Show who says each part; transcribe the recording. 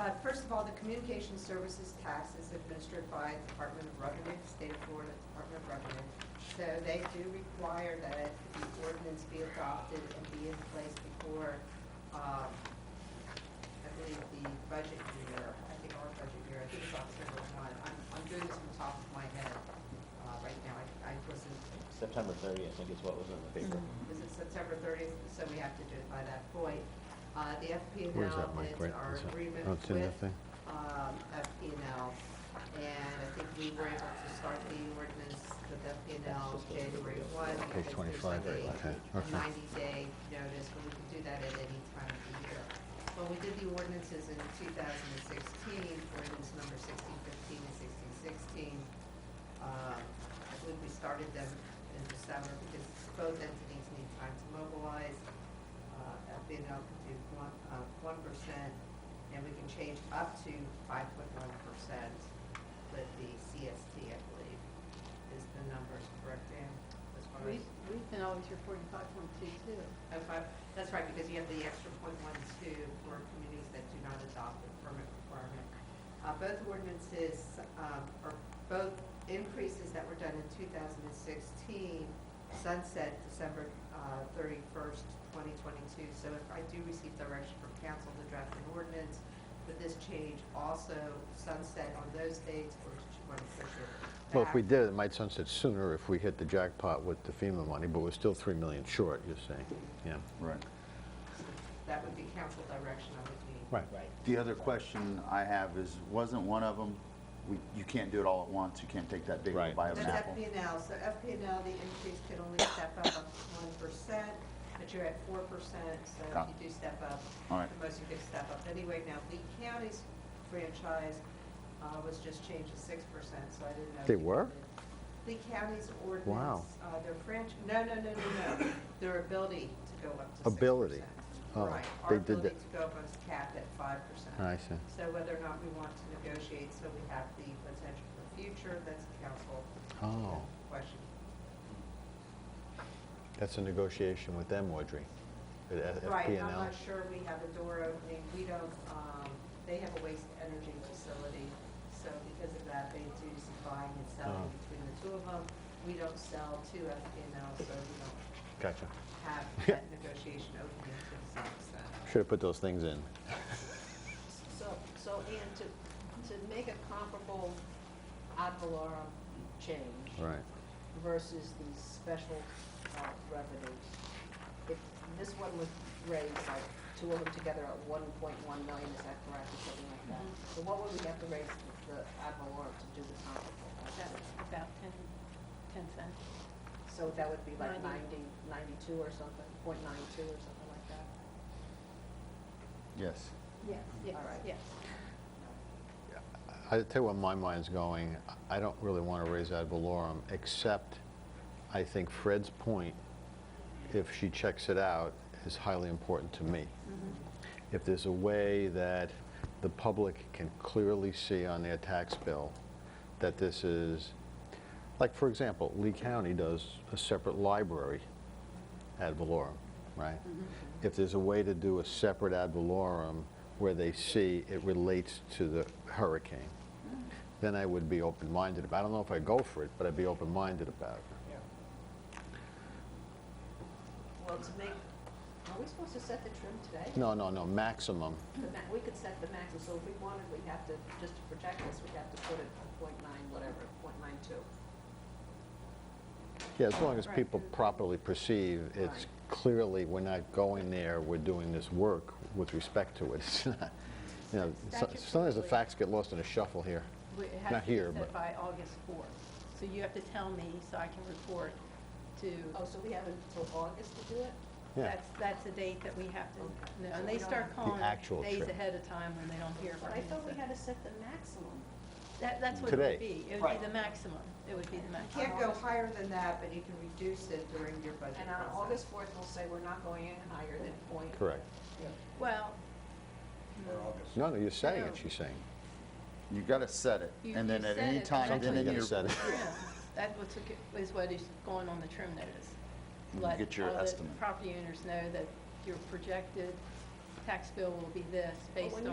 Speaker 1: Uh, First of all, the communication services tax is administered by the Department of Revenue, State of Florida Department of Revenue. So they do require that the ordinance be adopted and be in place before, um, I believe, the budget year, I think our budget year, I think it's October one. I'm, I'm doing this on the top of my head uh, right now. I I wasn't,
Speaker 2: September 30th, I think is what was in the paper.
Speaker 1: was it September thirtieth? So we have to do it by that point. Uh, The FP and
Speaker 3: Where's
Speaker 1: L
Speaker 3: that mic,
Speaker 1: is
Speaker 3: right?
Speaker 1: our
Speaker 3: Is that-
Speaker 1: agreement
Speaker 3: oh, it's in that
Speaker 1: with
Speaker 3: thing?
Speaker 1: um, FPNL, and I think we were able to start the ordinance with FPNL January 1.
Speaker 3: Page
Speaker 1: because there's like
Speaker 3: 25,
Speaker 1: a-
Speaker 3: okay,
Speaker 1: A
Speaker 3: okay.
Speaker 1: 90-day notice, but we can do that at any time of the year. When we did the ordinances in 2016, ordinance number 1615 and 1616, uh, I believe we started them in December because both entities need time to mobilize. Uh, FPNL could do one, uh, 1%, and we can change up to five point one percent with the CST, I believe, is the numbers, correct, Dan? As far
Speaker 4: We,
Speaker 1: as,
Speaker 4: we've been always reporting five point two two.
Speaker 1: oh, five, that's right, because you have the extra point one two for communities that do not adopt the permit requirement. Uh, both ordinances, um, are both increases that were done in two thousand and sixteen sunset December, uh, thirty-first, twenty twenty-two. So if I do receive direction from council to draft an ordinance, would this change also sunset on those dates, or did you want to push it
Speaker 3: Well, if we
Speaker 1: back?
Speaker 3: did, it might sunset sooner if we hit the jackpot with the FEMA money, but we're still 3 million short, you're saying, yeah.
Speaker 5: Right.
Speaker 1: That would be council direction I would need.
Speaker 3: Right.
Speaker 5: The other question I have is, wasn't one of them, we, you can't do it all at once, you can't take that big
Speaker 3: Right.
Speaker 5: bite of an
Speaker 1: That's
Speaker 5: apple?
Speaker 1: FPNL, so FPNL, the increase could only step up up to one percent, but you're at four percent, so
Speaker 5: Got
Speaker 1: if
Speaker 5: it.
Speaker 1: you do step up,
Speaker 5: All right.
Speaker 1: the most you could step up. Anyway, now Lee County's franchise uh, was just changed to six percent, so I didn't know.
Speaker 3: They
Speaker 1: if you
Speaker 3: were?
Speaker 1: did. Lee County's ordinance.
Speaker 3: Wow.
Speaker 1: uh, Their franchise, no, no, no, no, no, their ability to go up to six percent.
Speaker 3: Ability. Oh,
Speaker 1: Right,
Speaker 3: they
Speaker 1: our
Speaker 3: did
Speaker 1: ability
Speaker 3: that.
Speaker 1: to go up was capped at five percent.
Speaker 3: I see.
Speaker 1: So whether or not we want to negotiate, so we have the potential for future, that's a council
Speaker 3: Oh,
Speaker 1: question.
Speaker 3: that's a negotiation with them, Audrey, at F-
Speaker 1: Right, and I'm
Speaker 3: FPNL.
Speaker 1: not sure we have a door opening, we don't, um, they have a waste energy facility, so because of that, they do some buying and selling
Speaker 3: Oh.
Speaker 1: between the two of them. We don't sell to FPNL, so we don't
Speaker 3: Gotcha.
Speaker 1: have that negotiation opening to some extent.
Speaker 3: Should have put those things in.
Speaker 4: So, so and to, to make a comparable ad valorem change.
Speaker 3: Right.
Speaker 4: Versus these special uh, revenues. If this one was raised, like, two of them together at one point one million, is that correct, or something like that? So what would we have to raise the the ad valorem to do the
Speaker 6: That's
Speaker 4: comparable?
Speaker 6: about ten, ten cents.
Speaker 4: So that would be like
Speaker 6: Ninety.
Speaker 4: ninety, ninety-two or something, point nine-two or something like that?
Speaker 5: Yes.
Speaker 6: Yes, yes,
Speaker 4: All right.
Speaker 6: yes.
Speaker 3: I I'll tell you where my mind's going, I don't really want to raise ad valorem, except I think Fred's point, if she checks it out, is highly important to me. If there's a way that the public can clearly see on their tax bill that this is, like, for example, Lee County does a separate library ad valorem, right? If there's a way to do a separate ad valorem where they see it relates to the hurricane, then I would be open-minded about, I don't know if I'd go for it, but I'd be open-minded about it.
Speaker 4: Well, to make, are we supposed to set the trim today?
Speaker 3: No, no, no, maximum,
Speaker 4: The ma- We could set the maximum, so if we wanted, we'd have to, just to protect this, we'd have to put it at point nine, whatever, point nine two.
Speaker 3: yeah, as long as people properly perceive, it's
Speaker 4: Right.
Speaker 3: clearly, we're not going there, we're doing this work with respect to it, it's not, you know, so- sometimes the
Speaker 6: Statutorily.
Speaker 3: facts get lost in a shuffle here.
Speaker 6: We- It has
Speaker 3: Not
Speaker 6: to be
Speaker 3: here, but-
Speaker 6: set by August fourth. So you have to tell me so I can report to,
Speaker 4: Oh, so we have until August to do it?
Speaker 3: Yeah.
Speaker 6: that's, that's the date that we have to,
Speaker 4: Okay.
Speaker 6: no,
Speaker 4: So
Speaker 6: and
Speaker 4: we
Speaker 6: they
Speaker 4: don't have-
Speaker 6: start
Speaker 4: The
Speaker 6: calling
Speaker 3: actual
Speaker 6: days
Speaker 3: trip.
Speaker 6: ahead of time when they don't hear from
Speaker 4: But
Speaker 6: you.
Speaker 4: I thought we
Speaker 6: so-
Speaker 4: had to set the maximum.
Speaker 6: That, that's what it
Speaker 3: Today.
Speaker 6: would be. It would
Speaker 5: Right.
Speaker 6: be the maximum. It would be the
Speaker 1: You
Speaker 6: maximum.
Speaker 1: can't go higher than that, but you can reduce it during your budget
Speaker 4: And on
Speaker 1: process.
Speaker 4: August fourth, we'll say we're not going in higher than point.
Speaker 3: Correct.
Speaker 6: Well,
Speaker 3: No, no, you're saying
Speaker 6: No.
Speaker 3: it, she's saying.
Speaker 5: You gotta set it,
Speaker 6: You-
Speaker 5: and then
Speaker 6: you
Speaker 5: at
Speaker 6: set
Speaker 5: any
Speaker 6: it,
Speaker 5: time,
Speaker 6: but
Speaker 5: then
Speaker 3: Something
Speaker 5: in
Speaker 3: you
Speaker 5: your,
Speaker 3: said.
Speaker 6: yeah, that was, is what is going on the trim notice.
Speaker 5: You
Speaker 6: Let
Speaker 5: get your
Speaker 6: all the
Speaker 5: estimate.
Speaker 6: property owners know that your projected tax bill will be this based
Speaker 4: when
Speaker 6: on.
Speaker 4: you